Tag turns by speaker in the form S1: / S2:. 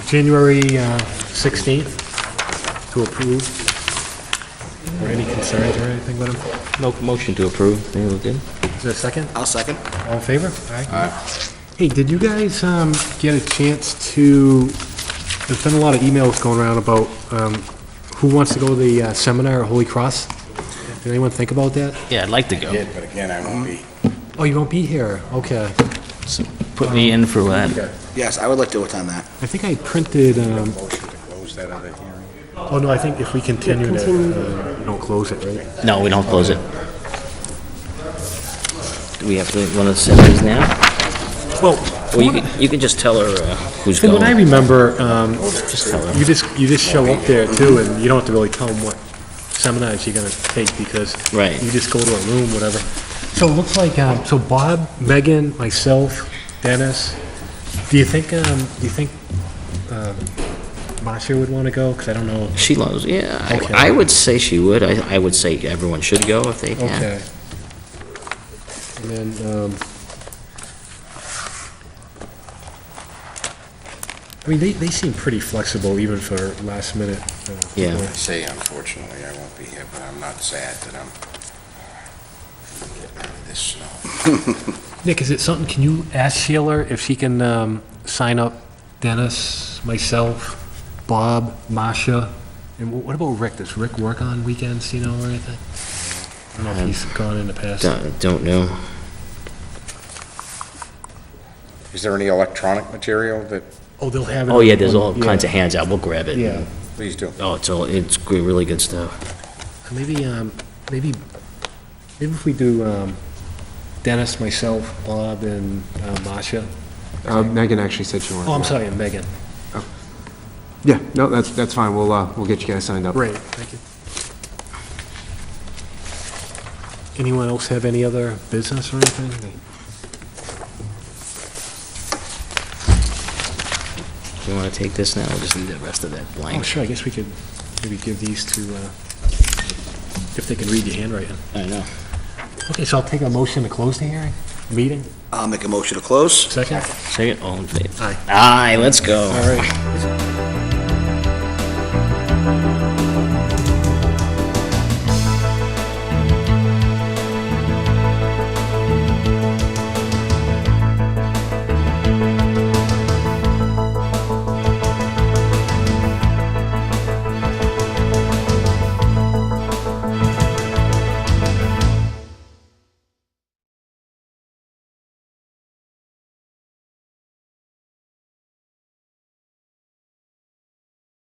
S1: January uh, 16th to approve. Or any concerns or anything with them?
S2: No motion to approve. Think we're good?
S1: Is there a second?
S3: I'll second.
S1: All in favor? Aye. Hey, did you guys um, get a chance to, there's been a lot of emails going around about um, who wants to go to the uh, seminar at Holy Cross? Did anyone think about that?
S2: Yeah, I'd like to go.
S3: Did, but again, I won't be.
S1: Oh, you won't be here, okay.
S2: Put me in for uh, that.
S3: Yes, I would like to attend that.
S1: I think I printed, um,
S3: Motion to close that other hearing.
S1: oh no, I think if we continue to, uh, we don't close it, right?
S2: No, we don't close it. Do we have to, one of the semis now?
S1: Well,
S2: Well, you can, you can just tell her uh, who's
S1: from what I
S2: going.
S1: remember, um,
S2: Just tell her.
S1: you just, you just show up there too, and you don't have to really tell them what seminars you're gonna take, because
S2: Right.
S1: you just go to a room, whatever. So it looks like, um, so Bob, Megan, myself, Dennis, do you think, um, do you think, um, Marcia would wanna go? Because I don't know.
S2: She loves, yeah. I-
S1: Okay.
S2: I would say she would. I, I would say everyone should go if they can.
S1: Okay. And then, um, I mean, they, they seem pretty flexible even for last minute. uh,
S2: Yeah.
S1: work.
S3: Say unfortunately, I won't be here, but I'm not sad that I'm getting out of this snow.
S1: Nick, is it something, can you ask Sheila if she can, um, sign up Dennis, myself, Bob, Masha? And wh- what about Rick? Does Rick work on weekends, you know, or anything? I
S2: Um,
S1: don't know if he's gone in the past.
S2: Don't, don't know.
S3: Is there any electronic material that,
S1: Oh, they'll have it.
S2: Oh, yeah, there's all kinds of hands out. We'll grab it.
S1: Yeah.
S3: please do.
S2: Oh, it's all, it's gr- really good stuff.
S1: So Maybe, um, maybe, maybe if we do, um, Dennis, myself, Bob, and, uh, Masha.
S4: Uh, Megan actually said she wanted.
S1: Oh, I'm
S4: to-
S1: sorry, and Megan.
S4: Yeah, no, that's, that's fine, we'll, uh, we'll get you guys signed up.
S1: Great, thank you. Anyone else have any other business or anything?
S2: You want to take this now? We'll just leave the rest of that
S1: Oh,
S2: blank.
S1: sure, I guess we could maybe give these to, uh, if they can read your handwriting.
S2: I know.
S1: Okay, so I'll take a motion to close the hearing, meeting,
S3: I'll make a motion to close.
S1: second?
S2: Second, all in favor?
S1: Aye.
S2: Aye, let's go.
S1: All right.